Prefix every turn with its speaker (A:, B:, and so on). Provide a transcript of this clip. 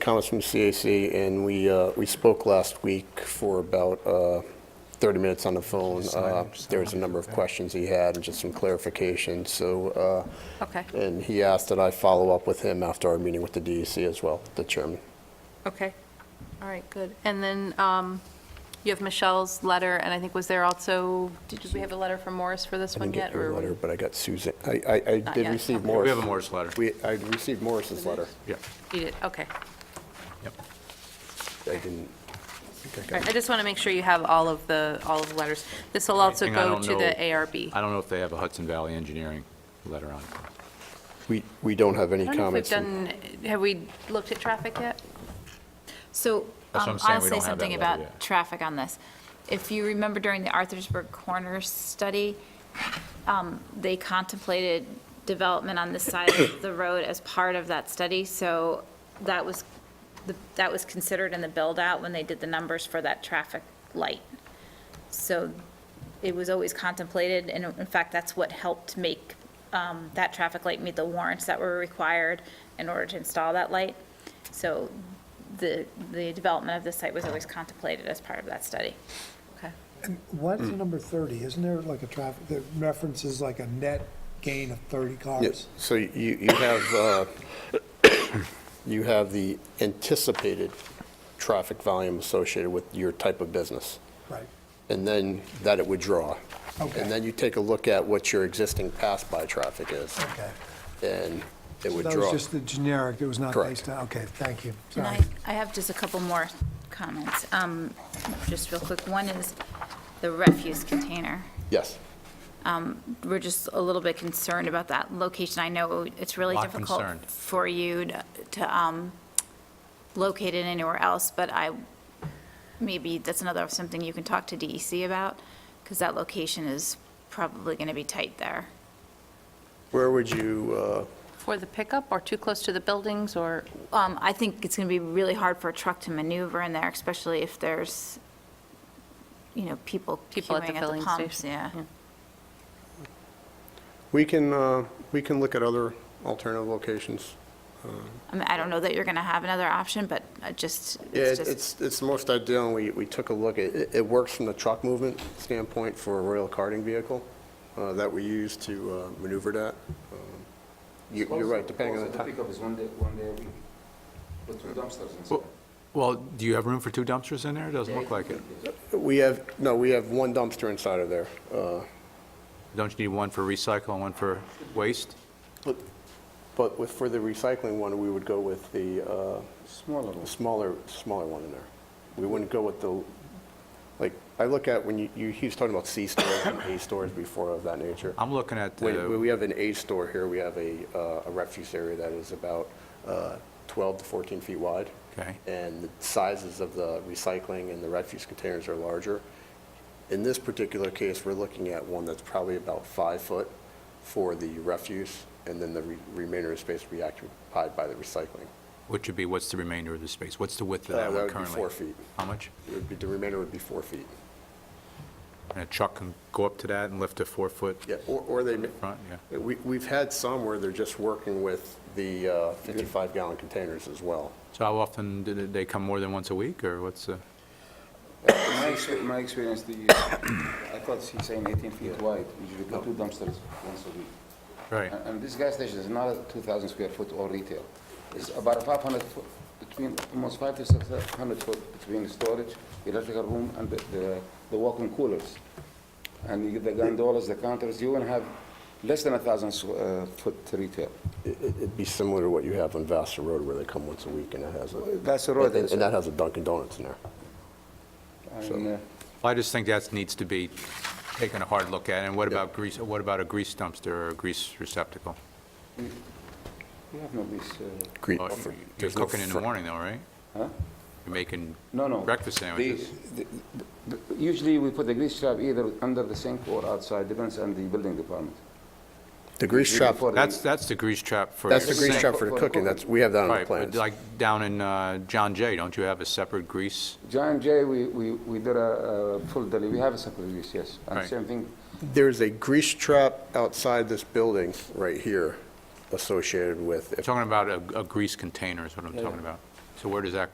A: comments from CAC, and we, uh, we spoke last week for about uh, 30 minutes on the phone. Uh, There was a number of questions he had and just some clarification, so. uh,
B: Okay.
A: And he asked that I follow up with him after our meeting with the DEC as well, the chairman.
B: Okay, all right, good. And then um, you have Michelle's letter, and I think was there also, did we have a letter from Morris for this
A: I didn't
B: one
A: get
B: yet?
A: your
B: or
A: letter, but I got Susan, I, I, I
B: Not
A: did
B: yet,
A: receive
B: okay.
A: Morris.
C: We have a Morris letter.
A: We, I received Morris's letter.
C: Yeah.
B: You did, okay.
C: Yep.
A: I didn't. think I
B: All
A: got
B: right, I just want to make sure you have all of the, all of the letters. This will also
C: Thing I
B: go
C: don't
B: to
C: know-
B: the ARB.
C: I don't know if they have a Hudson Valley Engineering letter on.
A: We, we don't have any
B: I don't know if we've
A: comments. in-
B: done, have we looked at traffic yet?
D: So
C: That's what I'm
D: um,
C: saying,
D: I'll
C: we
D: say
C: don't have
D: something
C: that letter
D: about
C: yet.
D: traffic on this. If you remember during the Arthur'sburg Corners study, um, they contemplated development on this side of the road as part of that study. So that was, the- that was considered in the build-out when they did the numbers for that traffic light. So it was always contemplated, and in fact, that's what helped make um, that traffic light meet the warrants that were required in order to install that light. So the, the development of the site was always contemplated as part of that study.
B: Okay.
E: Why
A: Hmm.
E: is it number 30? Isn't there like a traffic, that references like a net gain of 30 cars?
A: So you, you have, uh, you have the anticipated traffic volume associated with your type of business,
E: Right.
A: and then that it would draw.
E: Okay.
A: And then you take a look at what your existing pass-by traffic is,
E: Okay.
A: and it would
E: That was
A: draw.
E: just the generic, it was not
A: Correct.
E: based on, okay, thank you.
D: And
E: Sorry.
D: I, I have just a couple more comments, um, just real quick. One is the refuse container.
A: Yes.
D: We're just a little bit concerned about that location. I know it's really
C: Lot
D: difficult
C: concerned.
D: for you to- to um, locate it anywhere else, but I, maybe that's another, something you can talk to DEC about, because that location is probably going to be tight there.
A: Where would you, uh,
B: For the pickup, or too close to the buildings, or,
D: Um, I think it's going to be really hard for a truck to maneuver in there, especially if there's, you know, people
B: People at the
D: queuing at
B: filling
D: the pumps,
B: station.
D: yeah.
A: we can, uh, we can look at other alternative locations.
D: I mean, I don't know that you're going to have another option, but I just,
A: Yeah,
D: it's
A: it-
D: just.
A: it's, it's the most ideal, and we, we took a look at, it, it works from the truck movement standpoint for a rail carting vehicle uh, that we use to uh, maneuver that. Um, you- You're right, depending on the
F: Also,
A: time.
F: pickup is one day, one day a week, with two dumpsters inside.
C: Well- Well, do you have room for two dumpsters in there? It doesn't look like it.
A: We have, no, we have one dumpster inside of there. uh,
C: Don't you need one for recycle and one for waste?
A: but- But with, for the recycling one, we would go with the uh,
F: Smaller ones.
A: smaller, smaller one in there. We wouldn't go with the, like, I look at when you, you, he was talking about C stores and A stores before of that nature.
C: I'm looking at uh,
A: We- We we
C: the,
A: have an A store here, we have a uh, a refuse area that is about uh, 12 to 14 feet wide.
C: Okay.
A: And the sizes of the recycling and the refuse containers are larger. In this particular case, we're looking at one that's probably about five foot for the refuse, and then the re- remainder of space will be occupied by the recycling.
C: which would be, what's the remainder of the space? What's the width of
A: Uh,
C: that
A: that
C: one
A: would be
C: currently?
A: four feet.
C: How much?
A: It would be- The remainder would be four feet.
C: And a truck can go up to that and lift a four-foot
A: Yeah, or or they, ma-
C: front, yeah?
A: we- we've had some where they're just working with the uh, 55 gallon containers as well.
C: So how often, do they- they come more than once a week, or what's the?
F: Uh, My experience, my experience, the, I thought he's saying 18 feet wide, usually put two dumpsters once a week.
C: Right,
F: And- And this gas station is not a 2,000 square foot all retail. It's about 500 foot, between, almost 5 to 600 foot between storage, electrical room, and the- the the walk-in coolers. And you get the gondolas, the counters, you will have less than 1,000 squ- uh, foot retail.
A: It- It'd be similar to what you have on Vassar Road where they come once a week and it has a.
F: Vassar Road
A: and-
F: is-
A: And that has a Dunkin' Donuts in there.
F: And, uh,
C: I just think that needs to be taken a hard look at, and what about grease, what about a grease dumpster or a grease receptacle?
F: We have no grease. uh,
A: Great.
C: Oh,
A: for-
C: You're
A: there's no
C: cooking in
A: fr-
C: the morning though, right?
F: Huh?
C: You're making
F: No, no.
C: breakfast
F: The-
C: sandwiches.
F: the- the- Usually, we put the grease trap either under the sink or outside, depends on the building department.
A: The grease trap,
F: Before the-
C: That's, that's the grease trap for.
A: that's
C: your
A: the grease
C: sink.
A: trap for the cooking, that's, we have that on the
C: Right, but
A: plans.
C: like down in uh, John Jay, don't you have a separate grease?
F: John Jay, we, we, we did a, uh full deli, we have a separate use, yes. And
C: Right.
F: same thing,
A: There's a grease trap outside this building right here associated with,
C: I'm talking about a a grease container is what I'm talking about. So where does that